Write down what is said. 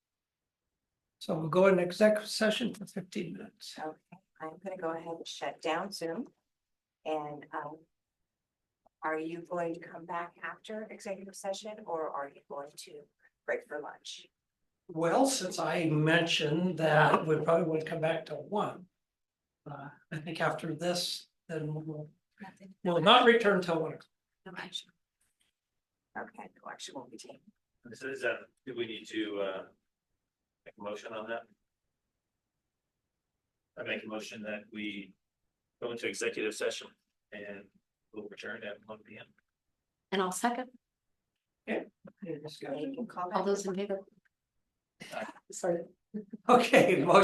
So we'll go in executive session for fifteen minutes. I'm gonna go ahead and shut down Zoom. And, um. Are you going to come back after executive session or are you going to break for lunch? Well, since I mentioned that we probably would come back to one. Uh, I think after this, then we'll, Nothing. we'll not return till one. o'clock. No action. Okay, no action won't be taken. So is that, do we need to uh make a motion on that? I make a motion that we go into executive session and we'll return at one P M. And I'll second. Any You discussion? can call back. All those in favor? Aye. Sorry. Okay, motion